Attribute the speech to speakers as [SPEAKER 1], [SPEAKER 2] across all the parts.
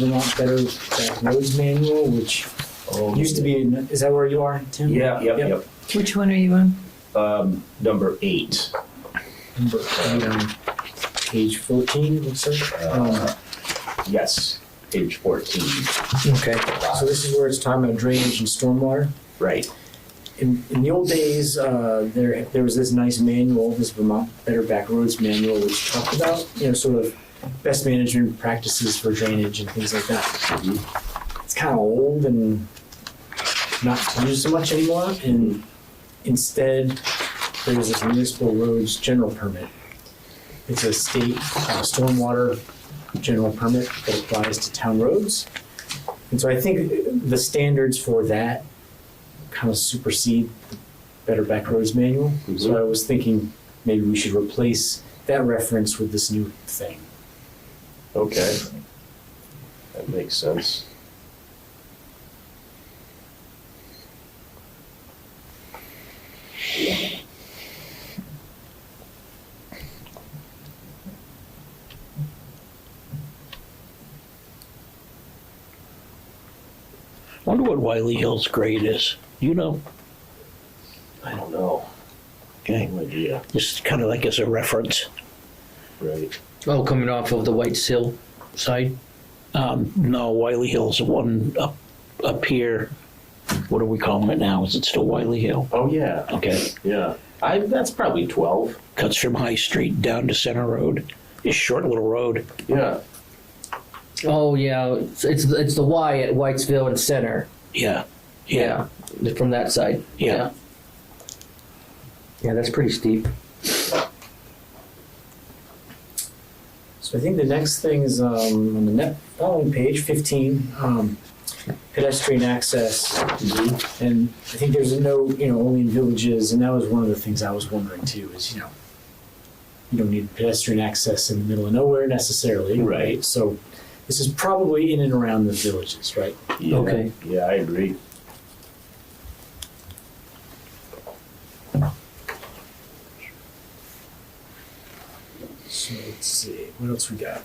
[SPEAKER 1] Vermont Better Back Roads Manual, which
[SPEAKER 2] Oh,
[SPEAKER 1] used to be, in- is that where you are, Tim?
[SPEAKER 2] Yeah, yep, yep.
[SPEAKER 3] Which one are you on?
[SPEAKER 2] Um, number eight.
[SPEAKER 1] Number eight on Page fourteen, it looks like. Um,
[SPEAKER 2] Uh, yes, page 14.
[SPEAKER 1] Okay, Um, so this is where it's talking about drainage and stormwater.
[SPEAKER 2] Right.
[SPEAKER 1] in, in the old days, uh, there there was this nice manual, this Vermont Better Back Roads manual, which talked about you know sort of best management practices for drainage and things like that. It's kind of old and not used so much anymore, and instead there was this municipal roads general permit. It's a state uh, stormwater general permit that applies to town roads, and so I think the standards for that kind of supersede the Better Back Roads Manual.
[SPEAKER 2] Mm-hmm.
[SPEAKER 1] So I was thinking maybe we should replace that reference with this new thing.
[SPEAKER 2] Okay. That makes sense.
[SPEAKER 4] Wonder what Wiley Hill's grade is. You know,
[SPEAKER 2] I don't know.
[SPEAKER 4] okay,
[SPEAKER 2] No idea.
[SPEAKER 4] just kind of like as a reference.
[SPEAKER 2] Right.
[SPEAKER 5] Oh, coming off of the White Hill side?
[SPEAKER 4] Um, no, Wiley Hill's the one up up here. What do we call it now? Is it still Wiley Hill?
[SPEAKER 2] Oh, yeah.
[SPEAKER 4] Okay,
[SPEAKER 2] Yeah. I, that's probably 12.
[SPEAKER 4] cuts from High Street down to Center Road. It's a short little road.
[SPEAKER 2] Yeah.
[SPEAKER 5] Oh, yeah, it's, it's, it's the Y at Whitesville and Center.
[SPEAKER 4] Yeah, yeah,
[SPEAKER 5] Yeah, From that side.
[SPEAKER 4] Yeah.
[SPEAKER 5] Yeah, that's pretty steep.
[SPEAKER 1] So I think the next thing is um, on the net following page, 15, um, pedestrian access. And I think there's a note, you know, only in villages, and that was one of the things I was wondering too, is, you know, you don't need pedestrian access in the middle of nowhere necessarily.
[SPEAKER 2] Right.
[SPEAKER 1] So this is probably in and around the villages, right?
[SPEAKER 2] yeah.
[SPEAKER 5] Okay.
[SPEAKER 2] Yeah, I agree.
[SPEAKER 1] So let's see, what else we got?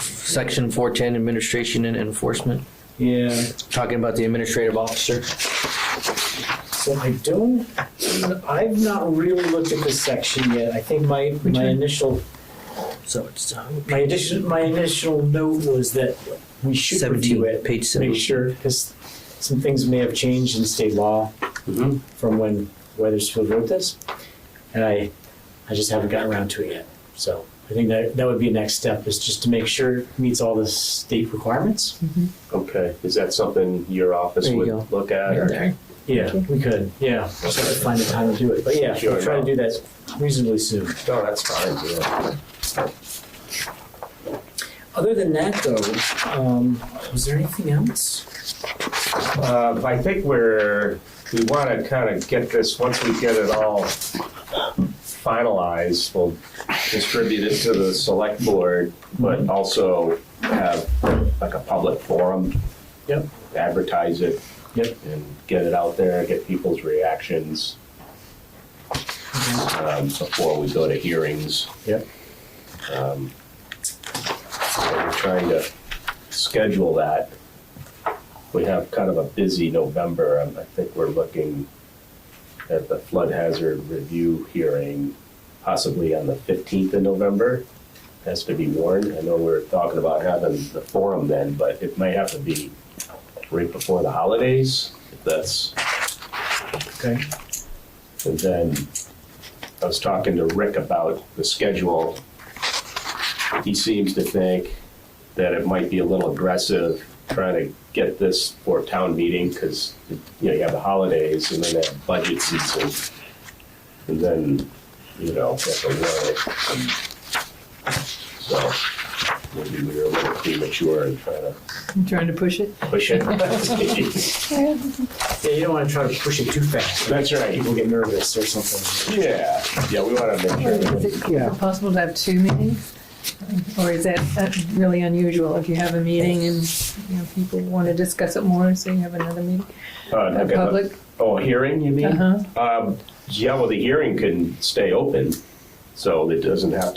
[SPEAKER 5] Section 410, Administration and Enforcement.
[SPEAKER 1] Yeah,
[SPEAKER 5] Talking about the administrative officer.
[SPEAKER 1] So I don't, I've not really looked at this section yet. I think my, my initial,
[SPEAKER 5] So it's uh,
[SPEAKER 1] my addition, my initial note was that we should review
[SPEAKER 5] 17,
[SPEAKER 1] it.
[SPEAKER 5] page 17.
[SPEAKER 1] Make sure, because some things may have changed in state law
[SPEAKER 2] Mhm.
[SPEAKER 1] from when Weathersfield wrote this. And I, I just haven't gotten around to it yet. So I think that, that would be the next step is just to make sure it meets all the state requirements.
[SPEAKER 2] Okay. Is that something your office
[SPEAKER 5] There you
[SPEAKER 2] would
[SPEAKER 5] go.
[SPEAKER 2] look at? Or?
[SPEAKER 1] Yeah, we could, yeah. Just have to find the time to do it. But yeah,
[SPEAKER 2] Sure,
[SPEAKER 1] we'll try to do that reasonably soon.
[SPEAKER 2] No, Oh, that's fine. Yeah.
[SPEAKER 1] Other than that, though, um, was there anything else?
[SPEAKER 2] Uh, I think we're, we want to kind of get this, once we get it all finalized, we'll distribute it to the select board, but also have like a public forum.
[SPEAKER 1] Yep.
[SPEAKER 2] Advertise it.
[SPEAKER 1] Yep.
[SPEAKER 2] And get it out there, get people's reactions, um, before we go to hearings.
[SPEAKER 1] Yep.
[SPEAKER 2] Um, so We're trying to schedule that. We have kind of a busy November. Um, I think we're looking at the flood hazard review hearing possibly on the 15th of November. Has to be warned. I know we're talking about having the forum then, but it may have to be right before the holidays. If that's
[SPEAKER 1] Okay.
[SPEAKER 2] and then I was talking to Rick about the schedule. He seems to think that it might be a little aggressive trying to get this for town meeting because, you know, you have the holidays and then they have budget season. And then, you know, that's a warrant. and So maybe we were a little premature in trying to
[SPEAKER 3] I'm trying to push it.
[SPEAKER 2] push it.
[SPEAKER 1] Yeah, you don't want to try to push it too fast.
[SPEAKER 2] That's right.
[SPEAKER 1] People get nervous or something.
[SPEAKER 2] Yeah, yeah, we want to make sure. that
[SPEAKER 3] Is it possible to have two meetings? Or is that that really unusual if you have a meeting and, you know, people want to discuss it more, so you have another meeting?
[SPEAKER 2] Uh,
[SPEAKER 3] A
[SPEAKER 2] like a-
[SPEAKER 3] public,
[SPEAKER 2] Oh, a hearing, you mean?
[SPEAKER 3] uh-huh.
[SPEAKER 2] Um, yeah, well, the hearing can stay open, so it doesn't have to